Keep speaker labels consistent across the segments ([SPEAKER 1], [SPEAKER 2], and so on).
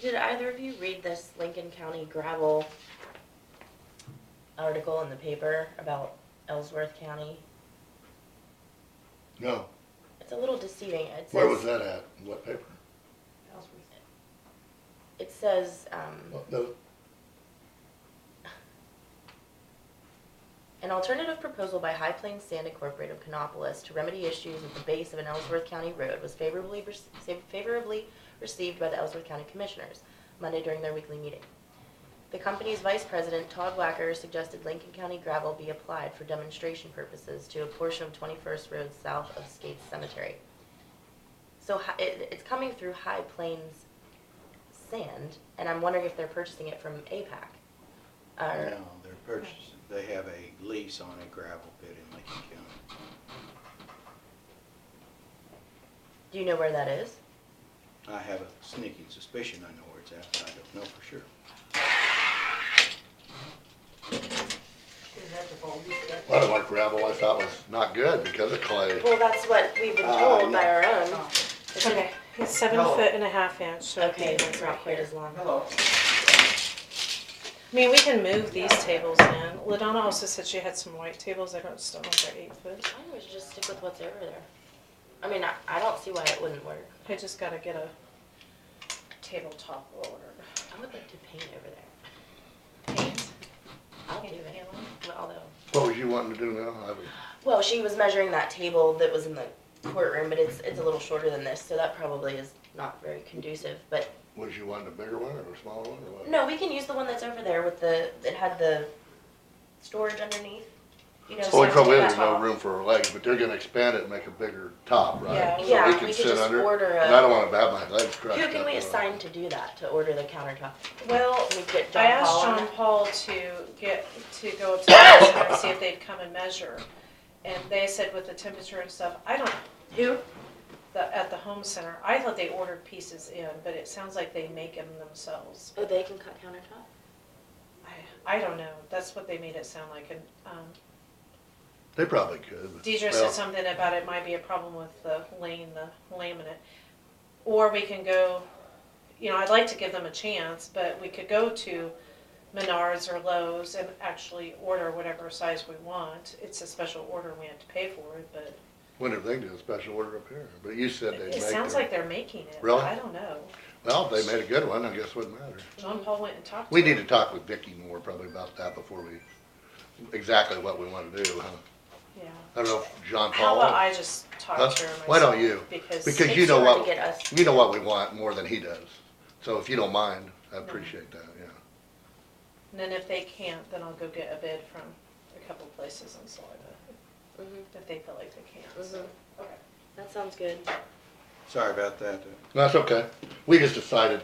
[SPEAKER 1] Did either of you read this Lincoln County gravel article in the paper about Ellsworth County?
[SPEAKER 2] No,
[SPEAKER 1] It's a little deceiving. It says,
[SPEAKER 2] where was that at? In What paper?
[SPEAKER 1] It says, um,
[SPEAKER 2] What, the-
[SPEAKER 1] An alternative proposal by High Plains Sand Incorporated of Canopolis to remedy issues at the base of an Ellsworth County road was favorably, rec- favorably received by the Ellsworth County Commissioners Monday during their weekly meeting. The company's vice president, Todd Wacker, suggested Lincoln County gravel be applied for demonstration purposes to a portion of 21st Road south of Skates Cemetery. So hi- it, it's coming through High Plains Sand, and I'm wondering if they're purchasing it from APAC. or-
[SPEAKER 3] No, they're purchasing, they have a lease on a gravel pit in Lincoln County.
[SPEAKER 1] do you know where that is?
[SPEAKER 3] I have a sneaking suspicion I know where it's at, but I don't know for sure.
[SPEAKER 2] Well, I like gravel, I thought was not good because of clay.
[SPEAKER 1] Well, that's what we've been
[SPEAKER 3] Uh,
[SPEAKER 1] told by
[SPEAKER 3] yeah.
[SPEAKER 1] our own. It's
[SPEAKER 4] Okay, it's seven
[SPEAKER 3] Hello.
[SPEAKER 4] foot and a half inch, so
[SPEAKER 1] Okay,
[SPEAKER 4] okay,
[SPEAKER 1] it's
[SPEAKER 4] right
[SPEAKER 1] not quite
[SPEAKER 4] here.
[SPEAKER 1] as long.
[SPEAKER 3] Hello.
[SPEAKER 4] I mean, we can move these tables in. Ladonna also said she had some white tables. I don't, still don't know if they're eight foot.
[SPEAKER 1] I would just stick with what's over there. I mean, I, I don't see why it wouldn't work.
[SPEAKER 4] I just gotta get a tabletop ordered.
[SPEAKER 1] I would like to paint over there.
[SPEAKER 4] Paint.
[SPEAKER 1] I'll do it. Well, Although,
[SPEAKER 2] What was you wanting to do now? I was-
[SPEAKER 1] well, she was measuring that table that was in the courtroom, but it's it's a little shorter than this, so that probably is not very conducive. But
[SPEAKER 2] Was you wanting a bigger one or a smaller one or what?
[SPEAKER 1] no, we can use the one that's over there with the it had the storage underneath. You know,
[SPEAKER 2] Well, we
[SPEAKER 1] so
[SPEAKER 2] probably
[SPEAKER 1] it's
[SPEAKER 2] have no
[SPEAKER 1] top.
[SPEAKER 2] room for our legs, but they're gonna expand it and make a bigger top,
[SPEAKER 4] Yeah.
[SPEAKER 2] right? So
[SPEAKER 1] Yeah,
[SPEAKER 2] can
[SPEAKER 1] we could
[SPEAKER 2] sit
[SPEAKER 1] just
[SPEAKER 2] under it.
[SPEAKER 1] order
[SPEAKER 2] And I
[SPEAKER 1] a.
[SPEAKER 2] don't wanna have my legs crushed
[SPEAKER 1] Who
[SPEAKER 2] up.
[SPEAKER 1] can we
[SPEAKER 2] or-
[SPEAKER 1] assign to do that to order the countertop?
[SPEAKER 4] Well,
[SPEAKER 1] We get John
[SPEAKER 4] I asked
[SPEAKER 1] Paul on
[SPEAKER 4] John
[SPEAKER 1] it?
[SPEAKER 4] Paul to get, to go up to the measure and see if they'd come and measure. And they said with the temperature and stuff, I don't,
[SPEAKER 1] Who?
[SPEAKER 4] the, at the home center, I thought they ordered pieces in, but it sounds like they make them themselves.
[SPEAKER 1] Oh, they can cut countertop?
[SPEAKER 4] I, I don't know. That's what they made it sound like. And um,
[SPEAKER 2] They probably could. but- well,
[SPEAKER 4] Deidre said something about it might be a problem with the laying the laminate. Or we can go, you know, I'd like to give them a chance, but we could go to Menards or Lowe's and actually order whatever size we want. It's a special order and we have to pay for it, but
[SPEAKER 2] Wonder if they can do a special order up here, but you said they'd
[SPEAKER 4] it
[SPEAKER 2] make
[SPEAKER 4] sounds
[SPEAKER 2] their,
[SPEAKER 4] like they're making it. but
[SPEAKER 2] Really?
[SPEAKER 4] I don't know.
[SPEAKER 2] well, if they made a good one, I guess it wouldn't matter.
[SPEAKER 4] John Paul went and talked to
[SPEAKER 2] We
[SPEAKER 4] them.
[SPEAKER 2] need to talk with Vicky more probably about that before we, exactly what we wanna do, huh?
[SPEAKER 4] Yeah.
[SPEAKER 2] I don't know if John
[SPEAKER 4] How
[SPEAKER 2] Paul.
[SPEAKER 4] about I just talk
[SPEAKER 2] Huh?
[SPEAKER 4] to her myself?
[SPEAKER 2] Why don't you?
[SPEAKER 4] Because.
[SPEAKER 2] Because
[SPEAKER 1] It's
[SPEAKER 2] you know
[SPEAKER 1] cheaper to
[SPEAKER 2] what-
[SPEAKER 1] get us-
[SPEAKER 2] You know what we want more than he does. So if you don't mind, I appreciate that, yeah.
[SPEAKER 4] And then if they can't, then I'll go get a bid from a couple places in Saliva,
[SPEAKER 1] Mhm,
[SPEAKER 4] if they feel like they can't, so.
[SPEAKER 1] mhm. That sounds good.
[SPEAKER 3] Sorry about that. uh,
[SPEAKER 2] That's okay. We just decided,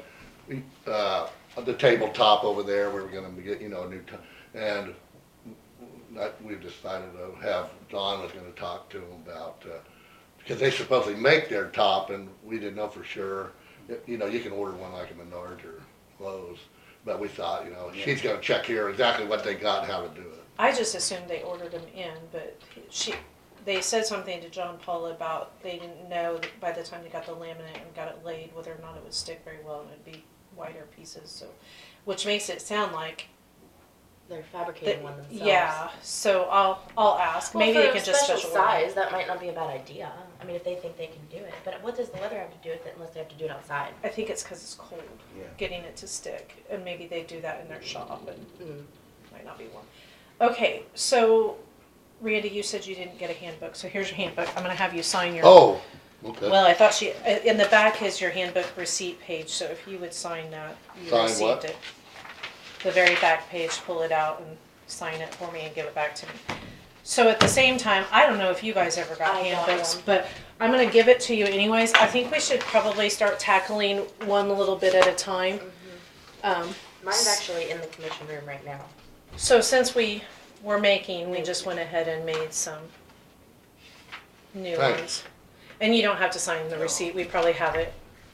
[SPEAKER 2] we, uh, the tabletop over there, we were gonna get, you know, a new, t- and that, we've decided to have, Don was gonna talk to him about, uh, because they supposedly make their top and we didn't know for sure. You know, you can order one like a Menards or Lowe's, but we thought, you know, she's gonna check here exactly what they got, and how to do it.
[SPEAKER 1] Mm-hmm.
[SPEAKER 4] I just assumed they ordered them in, but she, they said something to John Paul about they didn't know that by the time they got the laminate and got it laid, whether or not it would stick very well and it'd be wider pieces, so. Which makes it sound like,
[SPEAKER 1] They're
[SPEAKER 4] that,
[SPEAKER 1] fabricating one themselves.
[SPEAKER 4] yeah, so I'll, I'll ask,
[SPEAKER 1] Well,
[SPEAKER 4] maybe
[SPEAKER 1] for
[SPEAKER 4] they
[SPEAKER 1] a
[SPEAKER 4] can just
[SPEAKER 1] special
[SPEAKER 4] special order.
[SPEAKER 1] size, that might not be a bad idea. I mean, if they think they can do it, but what does the weather have to do with it unless they have to do it outside?
[SPEAKER 4] I think it's cause it's cold,
[SPEAKER 3] Yeah.
[SPEAKER 4] getting it to stick, and maybe they do that in their shop and.
[SPEAKER 1] Mm.
[SPEAKER 4] might not be one. Okay, so Randy, you said you didn't get a handbook, so here's your handbook. I'm gonna have you sign your.
[SPEAKER 2] Oh, okay.
[SPEAKER 4] Well, I thought she, uh, in the back is your handbook receipt page, so if you would sign that, you
[SPEAKER 2] Sign
[SPEAKER 4] received
[SPEAKER 2] what?
[SPEAKER 4] it. The very back page, pull it out and sign it for me and give it back to me. So at the same time, I don't know if you guys ever got
[SPEAKER 1] I got
[SPEAKER 4] handbooks,
[SPEAKER 1] one.
[SPEAKER 4] but I'm gonna give it to you anyways. I think we should probably start tackling one little bit at a time.
[SPEAKER 1] Mm-hmm.
[SPEAKER 4] Um,
[SPEAKER 1] Mine's actually in the commission room right now.
[SPEAKER 4] so since we were making, we just went ahead and made some new
[SPEAKER 2] Thanks.
[SPEAKER 4] ones. And you don't have to sign the receipt, we probably have it